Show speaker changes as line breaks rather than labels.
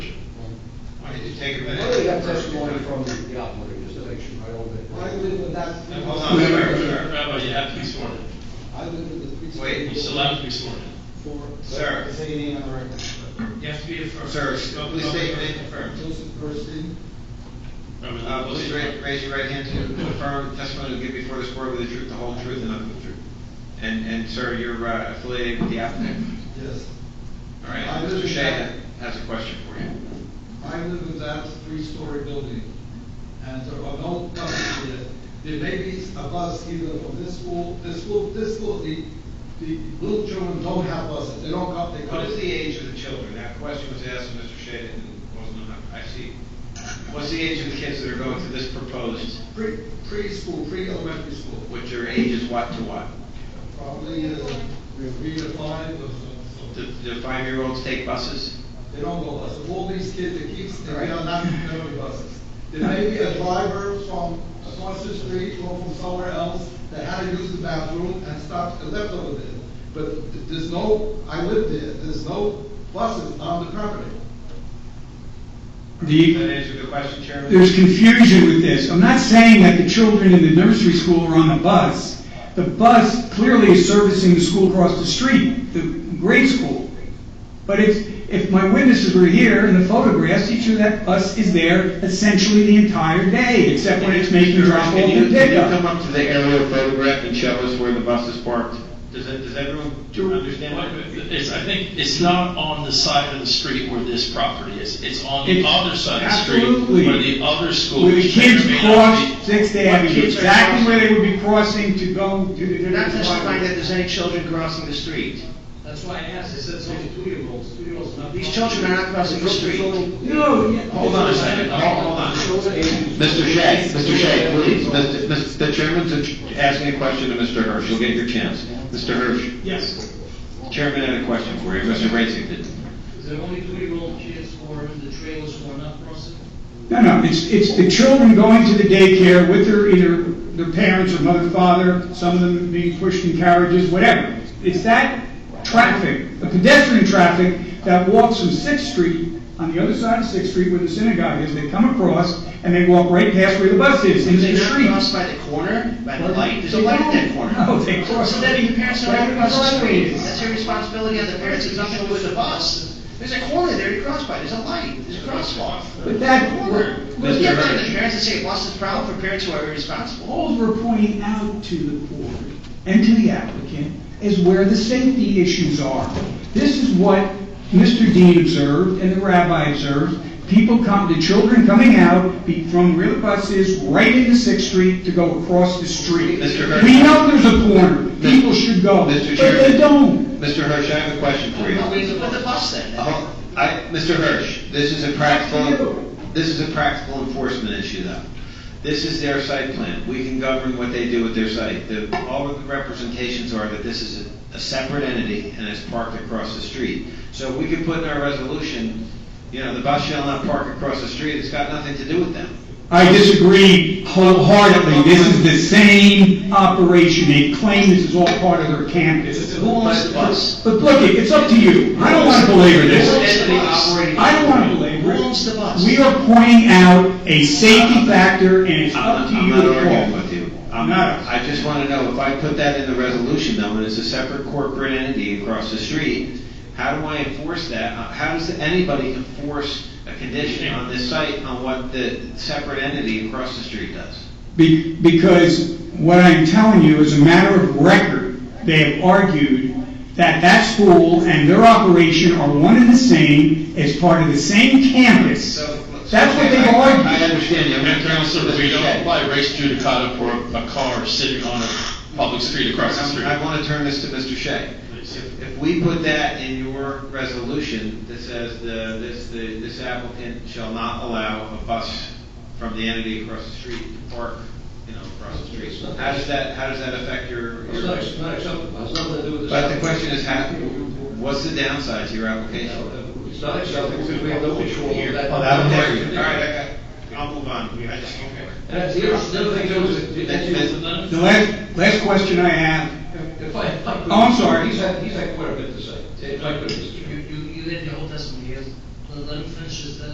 take a
I
minute.
really got testimony from the operator, just to make sure I don't.
I live with that.
Now, Hold on, wait, wait, wait.
Rabbi, you have to be sworn in.
I live with the three.
Wait,
You still have to be sworn in.
Four.
Sir.
Say your name on the record.
You have to be a first.
Sir, please state your name and firm.
Joseph Person,
Uh, please raise, raise your right hand to confirm the testimony you give before this board with the truth, the whole truth, and nothing but the truth. And, and sir, you're uh, affiliated with the applicant.
yes.
All right,
I live
Mr.
in-
Shea has a question for you.
I live in that three-story building, and there are no buses yet. There may be a bus either from this school, this school, this school, the, the little children don't have buses, they don't come, they come.
What is the age of the children? That question was asked of Mr. Shea and wasn't enough. I see. What's the age of the kids that are going to this proposed,
Pre, preschool, pre-elementary school,
which your age is what to what?
probably, uh, three to five, or so.
Do, do five-year-olds take buses?
They don't go buses. All these kids, the kids, they
Right.
are not going buses. There may be a driver from across the street or from somewhere else that had to use the bathroom and stopped and left over there. But th- there's no, I live there, there's no buses on the property.
Does that
The,
answer the question, Chairman?
there's confusion with this. I'm not saying that the children in the nursery school are on a bus. The bus clearly is servicing the school across the street, the grade school. But if, if my witnesses were here in the photographs, each of that bus is there essentially the entire day, except when it's making drop off
Can you-
and
Can you come
pickup.
up to the aerial photograph and show us where the bus is parked? Does it, does everyone understand?
What-
that?
It's, I think, it's not on the side of the street where this property is, it's on the
It's-
other side of the street
absolutely.
where the other school.
Where the
which may or
kids
may not be-
cross Sixth
Where
Avenue,
kids are
exactly
crossing.
where they would be crossing to go to the.
You're not testifying that there's any children crossing the street.
That's why I asked, it says only two-year-olds, two-year-olds not.
These children are not crossing the street.
No, yeah.
Hold on a second, hold hold on. Mr. Shea, Mr. Shea, please, Mr. Mr. the chairman's asking a question to Mr. Hirsch, you'll get your chance. Mr. Hirsch,
Yes.
chairman had a question for you, Mr. Racing did.
Is there only two-year-old kids for the trailers who are not crossing?
No, no, it's, it's the children going to the daycare with their, either their parents or mother, father, some of them being pushed in carriages, whatever. It's that traffic, the pedestrian traffic that walks from Sixth Street, on the other side of Sixth Street where the synagogue is, they come across and they walk right past where the bus is, in
They're
the
not
street.
crossed by the corner, by the light, there's a
They
light at that
don't.
corner.
No, they cross.
So then your parents are
right
not across the street.
corner.
That's your responsibility as the parents, it's nothing to do with the bus. There's a corner there to cross by, there's a light, there's a crosswalk.
But that-
Corner.
Mr.
Yeah, but
Hirsch.
the parents that say bus is a problem for parents who are irresponsible.
All we're pointing out to the board and to the applicant is where the safety issues are. This is what Mr. Dean observed and the rabbi observed. People come, the children coming out be- from real buses right into Sixth Street to go across the street.
Mr. Hurd.
We know there's a corner, people should go, but
Mr.
they
Chairman.
don't.
Mr. Hirsch, I have a question for you.
No, we can put the bus there. then.
Uh, I, Mr. Hirsch, this is a practical, this is a practical enforcement issue though. This is their site plan. We can govern what they do with their site. The, all of the representations are that this is a, a separate entity and it's parked across the street. So we can put in our resolution, you know, the bus shall not park across the street. It's got nothing to do with them.
I disagree wholeheartedly, this is the same operation, they claim this is all part of their campus.
Who owns the bus?
But look, it, it's up to you, I don't want to belabor this.
Who owns the bus?
I don't want to belabor
Who
it.
owns the bus?
We are pointing out a safety factor, and it's up to
I'm
you
not
to
arguing
call.
with you.
I'm not.
I just want to know, if I put that in the resolution though, and it's a separate corporate entity across the street, how do I enforce that? Uh, How does anybody enforce a condition on this site on what the separate entity across the street does?
Be- Because what I'm telling you is a matter of record. They have argued that that school and their operation are one and the same, as part of the same campus.
So-
That's what
Okay,
they
I-
argued.
I understand you. I'm
And
not
Counselor, we don't
Okay.
apply race judicata for a car sitting on a public street across the street.
I'm- I want to turn this to Mr. Shea.
Please.
If if we put that in your resolution that says the, this, the- this applicant shall not allow a bus from the entity across the street to park, you know, across the street, how does that, how does that affect your?
It's
your-
not, it's not acceptable, it's nothing to do with this.
But the question is, how, what's the downside to your application? Oh,
It's not acceptable, because we have no control over that.
All right, I got, I'll move on. I just-
And that's the other, the other thing, too, is that- that you-
The last, last question I have
If I, if I could.
Oh, I'm sorry.
He's had, he's had quite a bit to say, if I could.